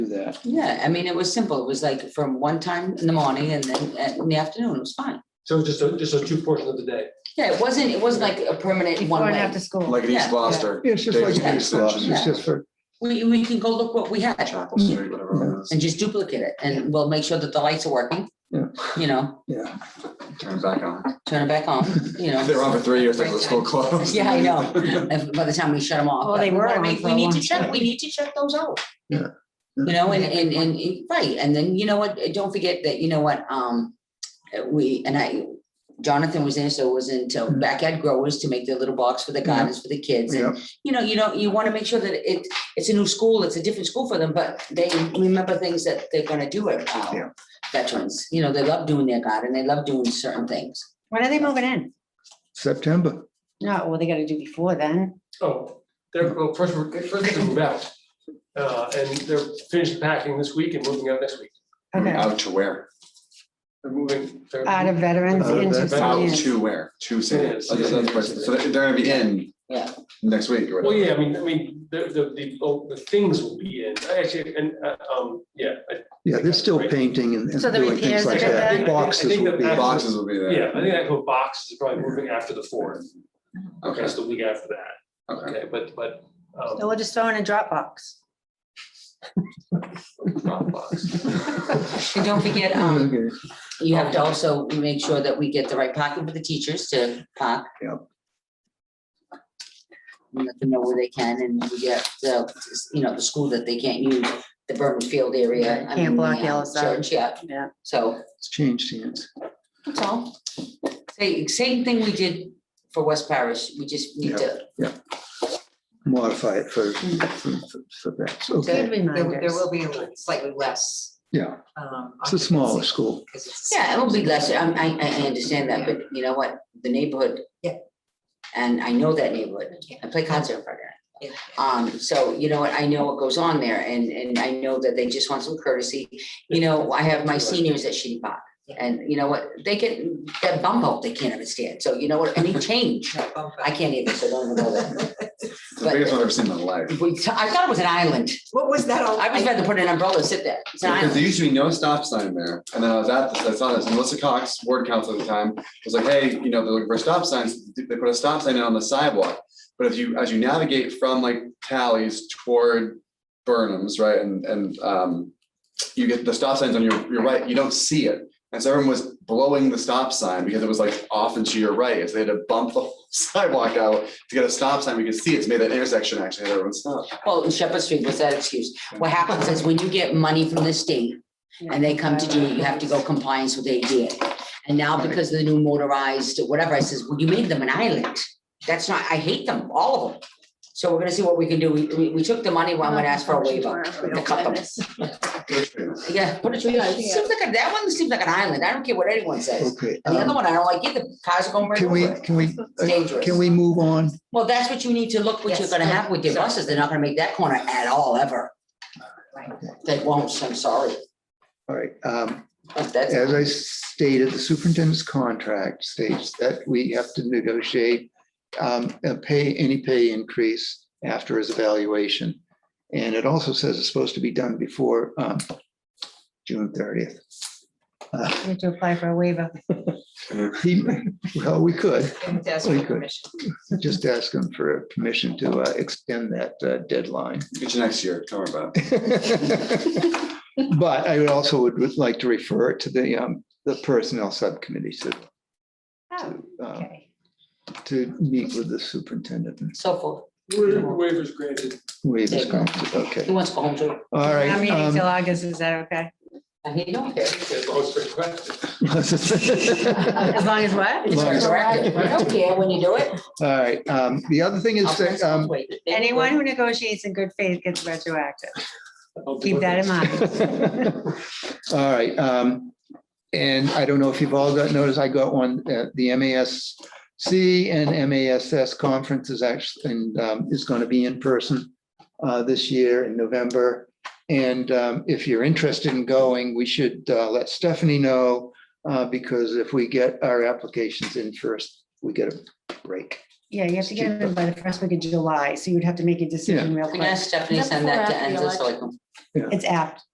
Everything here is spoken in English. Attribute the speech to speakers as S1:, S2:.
S1: that.
S2: Yeah, I mean, it was simple. It was like from one time in the morning and then at- in the afternoon, it was fine.
S3: So it's just a, just a two portion of the day.
S2: Yeah, it wasn't, it wasn't like a permanent
S4: Before
S2: one
S4: and
S2: way.
S4: after school.
S5: Like in East
S2: Yeah.
S5: Gloucester.
S1: It's just like,
S5: David's
S1: it's
S5: Extension,
S1: just for,
S2: We, we can go look what we had
S5: Chapel Street, whatever it is.
S2: and just duplicate it and we'll make sure that the lights are working.
S1: Yeah.
S2: You know,
S1: yeah,
S2: Mm-hmm.
S5: Turn it back on.
S2: turn it back on, you know.
S5: They were on for three years, like the school closed.
S2: Yeah, I know. If- By the time we shut them off.
S4: Well, Oh, they
S2: but we
S4: were
S2: wanna
S4: on
S2: make-
S4: for
S2: We
S4: a
S2: need to
S4: long
S2: check,
S4: time.
S2: we need to check those out.
S1: Yeah.
S2: You know, and, and, and, and- right, and then, you know what, uh, don't forget that, you know what, um, uh, we, and I, Jonathan was in, so was into
S1: Mhm.
S2: backyard growers to make their little box for the
S1: Yeah.
S2: gardens for the kids.
S1: yeah.
S2: And, you know, you know, you want to make sure that it, it's a new school, it's a different school for them, but they remember things that they're gonna do at,
S1: Yeah.
S2: uh, veterans, you know, they love doing their garden, they love doing certain things.
S4: When are they moving in?
S1: September.
S4: No, well, they gotta do before then.
S3: Oh, they're, well, first, we're- first they move out. Uh, and they're finished packing this week and moving out next week.
S4: Okay,
S5: Out to where?
S3: They're moving. they're-
S4: out of veterans
S1: Out of
S4: into
S5: Out
S4: seniors.
S5: to where? To San
S3: San Diego.
S5: So they're gonna be in.
S2: Yeah.
S5: Next week or
S3: Well,
S5: whatever.
S3: yeah, I mean, I mean, the, the, the, oh, the things will be in, actually, and, uh, um, yeah. I-
S1: Yeah, they're still painting and and
S4: So the
S1: doing things
S4: repairs
S1: like
S4: are gonna
S1: that.
S4: be-
S1: Boxes will be,
S3: yeah.
S5: Boxes will be there.
S3: Yeah, I think actual box is probably moving after the fourth,
S5: Okay,
S3: that's the week after that,
S5: okay.
S3: okay, but, but. um,
S4: So we'll just throw in a Dropbox.
S3: Dropbox.
S2: And don't forget, um,
S1: Okay.
S2: You have to also make sure that we get the right parking for the teachers to park.
S1: Yep.
S2: And Let them know where they can and we get the, you know, the school that they can't use, the Berman Field area. I
S4: Can't
S2: mean,
S4: block
S2: the, um,
S4: Yellowstone.
S2: Church, yeah,
S4: Yeah.
S2: so
S1: it's changed hands.
S2: that's all. Same, same thing we did for West Parish. We just need to,
S1: Modify it for, for for that. Okay,
S4: Good
S6: There- There
S4: reminders.
S6: will be slightly less.
S1: yeah,
S6: um,
S1: it's a smaller
S6: occupancy
S1: school.
S6: 'cause it's a
S2: yeah, it'll be less. I, I, I understand that, but you know what? The neighborhood.
S6: Yeah.
S2: And I know that neighborhood.
S6: small-
S2: I play concert in front of it.
S6: yeah,
S2: Um, so, you know what, I know what goes on there and, and I know that they just want some courtesy. You know, I have my seniors at Shitty Park. And you know what, they get that bump out, they can't understand. So you know what, any change,
S6: yeah, bump
S2: I
S6: up.
S2: can't even, so don't even go there.
S5: It's the biggest one I've ever seen in my life.
S2: We- I thought it was an island.
S6: What was that all?
S2: I was about to put an umbrella and sit there. It's an
S5: Because there
S2: island.
S5: used to be no stop sign there, and then I was at, this I saw this, and Melissa Cox, ward council at the time, was like, hey, you know, they're looking for stop signs, they put a stop sign in on the sidewalk. But if you, as you navigate from like Tallies toward Burnham's, right, and, and, um, you get the stop signs on your, your right, you don't see it. And so everyone was blowing the stop sign because it was like off and to your right, so they had to bump the whole sidewalk out to get a stop sign, we could see it's made that intersection actually, had everyone stop.
S2: Well, in Shepherd Street was that excuse. What happens is when you get money from the state and they come to do it, you have to go compliance with ADA. And now because of the new motorized, whatever, I says, well, you made them an island. That's not, I hate them, all of them. So we're gonna see what we can do. We, we, we took the money, well, I'm gonna ask for a waiver. to cut them. Yeah, put a tree, on it It seems like, a- that one seems like an island. I don't care what anyone says.
S1: Okay.
S2: And the other
S1: um,
S2: one, I don't like either. Cars are going right
S1: Can we,
S2: over it.
S1: can we,
S2: It's dangerous.
S1: can we move on?
S2: Well, that's what you need to look, what you're
S6: Yes.
S2: gonna have with your buses. They're not gonna make that corner at all, ever.
S6: Right.
S2: They won't, I'm sorry.
S1: All right, um,
S2: But That's,
S1: as I stated, the superintendent's contract states that we have to negotiate um, a pay, any pay increase after his evaluation. And it also says it's supposed to be done before um, June thirtieth.
S4: You have to apply for a waiver.
S1: Well, we could
S6: And ask
S1: Well,
S6: for
S1: you could.
S6: permission.
S1: just ask him for permission to uh, extend that uh, deadline.
S5: Get you next year, don't worry about it.
S1: But I would also would would like to refer it to the, um, the personnel subcommittee to
S4: Oh,
S1: um,
S4: okay.
S1: to meet with the superintendent and
S2: so forth.
S3: Waivers granted.
S1: waive his
S2: Yeah.
S1: consent.
S2: He
S1: Okay,
S2: wants to go home too.
S1: all right.
S4: I'm meeting till
S1: um,
S4: August, is that okay?
S2: And he don't care.
S3: That's the whole question.
S4: As long as what?
S1: As
S2: It's
S1: long as-
S2: retroactive. I don't care when you do it.
S1: All right, um, the other thing
S2: I'll
S1: is
S2: press
S1: that, um,
S2: wait. They-
S4: Anyone who negotiates in good faith gets retroactive.
S3: I'll do
S4: Keep that in mind.
S1: All right, um, and I don't know if you've all got notice, I got one, uh, the MASC and MASS conference is actually, and, um, is gonna be in person uh, this year in November. And, um, if you're interested in going, we should, uh, let Stephanie know, uh, because if we get our applications in first, we get a break.
S4: Yeah, you have to get it in by the first week of July, so you'd have to make a decision real
S2: Can
S4: quick.
S2: I ask Stephanie to send that to Enzo so I can
S1: Yeah.
S4: It's apt.